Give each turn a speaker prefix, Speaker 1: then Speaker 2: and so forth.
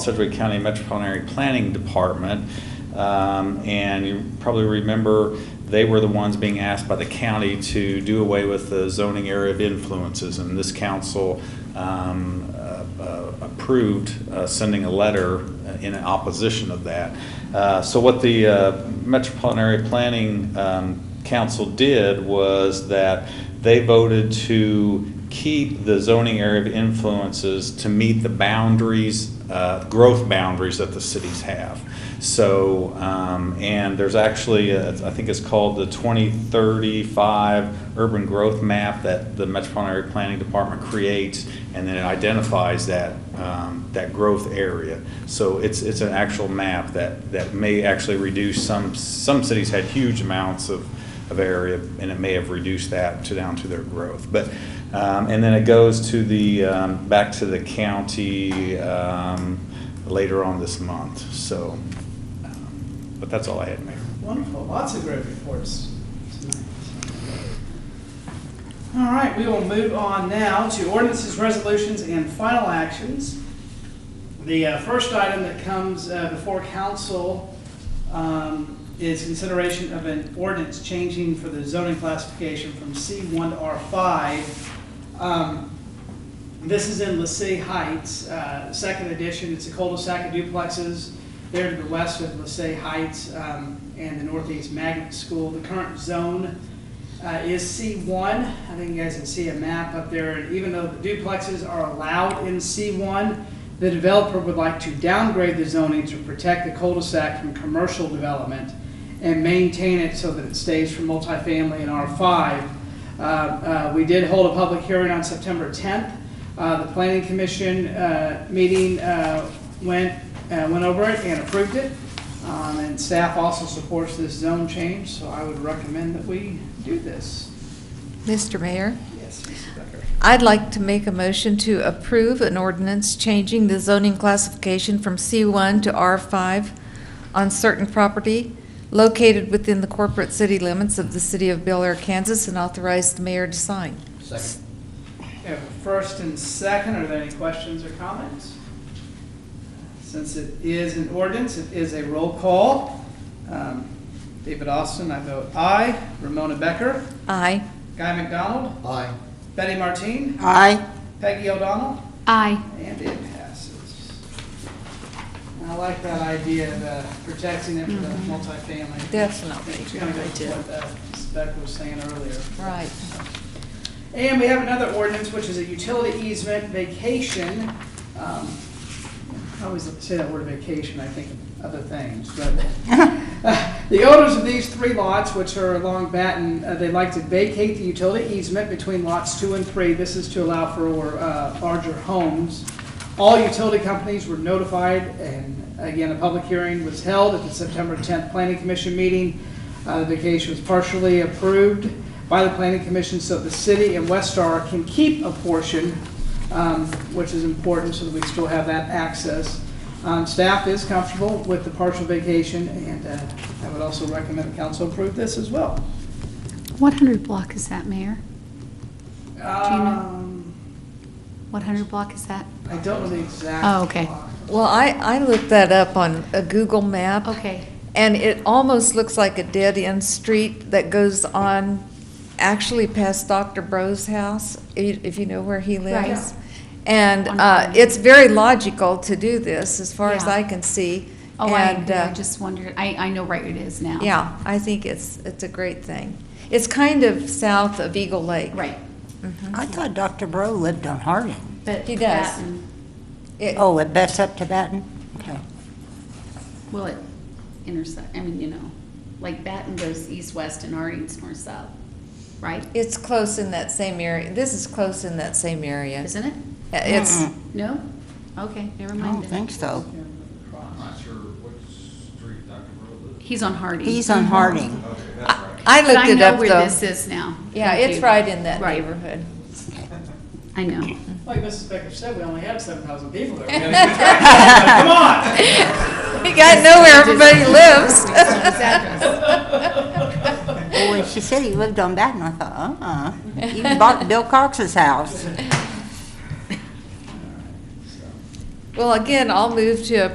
Speaker 1: Sedgwick County Metropolitan Area Planning Department. Um, And you probably remember, they were the ones being asked by the county to do away with the zoning area of influences. And this council um, uh, uh, approved uh, sending a letter uh, in opposition of that. Uh, So what the uh, Metropolitan Area Planning um, Council did was that they voted to keep the zoning area of influences to meet the boundaries, uh, growth boundaries that the cities have. So, um, and there's actually, uh, I think it's called the 2035 Urban Growth Map that the Metropolitan Area Planning Department creates, and then it identifies that, um, that growth area. So it's, it's an actual map that, that may actually reduce, some, some cities had huge amounts of, of area, and it may have reduced that to down to their growth. But, um, and then it goes to the, um, back to the county um, later on this month, so, um, but that's all I had, Mayor.
Speaker 2: Wonderful, lots of great reports tonight. All right, we will move on now to ordinances, resolutions, and final actions. The uh, first item that comes uh, before council um, is consideration of an ordinance changing for the zoning classification from C1 to R5. Um, This is in LaCie Heights, uh, second edition, it's a cul-de-sac of duplexes there to the west of LaSalle Heights um, and the northeast magnet school. The current zone uh, is C1. I think you guys can see a map up there. And even though the duplexes are allowed in C1, the developer would like to downgrade the zoning to protect the cul-de-sac from commercial development and maintain it so that it stays for multifamily in R5. Uh, uh, We did hold a public hearing on September 10th. Uh, The planning commission uh, meeting uh, went, uh, went over it and approved it. Um, And staff also supports this zone change, so I would recommend that we do this.
Speaker 3: Mr. Mayor,
Speaker 2: Yes, Mrs. Becker.
Speaker 3: I'd like to make a motion to approve an ordinance changing the zoning classification from C1 to R5 on certain property located within the corporate city limits of the city of Bel Air, Kansas, and authorize the mayor to sign.
Speaker 4: Second.
Speaker 2: We have a first and second, are there any questions or comments? Since it is an ordinance, it is a roll call. Um, David Austin, I vote aye. Ramona Becker,
Speaker 3: Aye.
Speaker 2: Guy McDonald,
Speaker 4: Aye.
Speaker 2: Betty Martine,
Speaker 5: Aye.
Speaker 2: Peggy O'Donnell,
Speaker 5: Aye.
Speaker 2: And it passes. And I like that idea of uh, protecting it from the multifamily. It's kind of what uh, Spec was saying earlier.
Speaker 3: Right.
Speaker 2: And we have another ordinance, which is a utility easement vacation. Um, I always say that word vacation, I think of other things, but. The owners of these three lots, which are along Batten, uh, they'd like to vacate the utility easement between lots two and three. This is to allow for uh, larger homes. All utility companies were notified, and again, a public hearing was held at the September 10th Planning Commission meeting. Uh, The vacation was partially approved by the planning commission so the city and West Star can keep a portion, um, which is important so that we still have that access. Um, Staff is comfortable with the partial vacation, and uh, I would also recommend the council approve this as well.
Speaker 5: What hundred block is that, Mayor?
Speaker 2: Um,
Speaker 5: What hundred block is that?
Speaker 2: I don't know the exact.
Speaker 5: Oh, okay.
Speaker 2: block.
Speaker 3: Well, I, I looked that up on a Google map.
Speaker 5: Okay,
Speaker 3: And it almost looks like a dead-end street that goes on, actually past Dr. Bro's house, i- if you know where he lives. And
Speaker 5: On
Speaker 3: uh,
Speaker 5: Vine.
Speaker 3: it's very logical to do this, as far as
Speaker 5: Yeah.
Speaker 3: I can see.
Speaker 5: oh, I,
Speaker 3: And,
Speaker 5: agree. I
Speaker 3: uh,
Speaker 5: just wondered, I, I know right it is now.
Speaker 3: Yeah, I think it's, it's a great thing. It's kind of south of Eagle Lake.
Speaker 5: Right,
Speaker 6: I thought Dr. Bro lived on Harding.
Speaker 5: but.
Speaker 3: He does.
Speaker 5: that and-
Speaker 3: It-
Speaker 6: Oh, it butts up to Baton? Okay.
Speaker 5: Will it intersect, I mean, you know, like Batten goes east-west and Harding's north-south, right?
Speaker 3: It's close in that same area, this is close in that same area.
Speaker 5: Isn't it?
Speaker 3: It's,
Speaker 6: Mm-mm.
Speaker 5: No? Okay, never
Speaker 6: I
Speaker 5: mind.
Speaker 6: don't
Speaker 5: then.
Speaker 6: think so.
Speaker 7: I'm not sure what street Dr. Burrow lives.
Speaker 5: He's on Harding.
Speaker 6: He's on Harding.
Speaker 7: Okay, that's
Speaker 3: I
Speaker 7: right.
Speaker 3: I
Speaker 5: But
Speaker 3: looked
Speaker 5: I
Speaker 3: it
Speaker 5: know
Speaker 3: up,
Speaker 5: where
Speaker 3: though.
Speaker 5: this is now.
Speaker 3: Yeah,
Speaker 5: Thank
Speaker 3: it's
Speaker 5: you.
Speaker 3: right in that
Speaker 5: Right.
Speaker 3: neighborhood.
Speaker 5: I know.
Speaker 2: Like Mrs. Becker said, we only have 7,000 people there. We gotta get back. Come on!
Speaker 3: You gotta know where everybody lives.
Speaker 5: His address.
Speaker 6: Well, when she said he lived on Baton, I thought, uh-uh. He bought Bill Cox's house.
Speaker 3: Well, again, I'll move to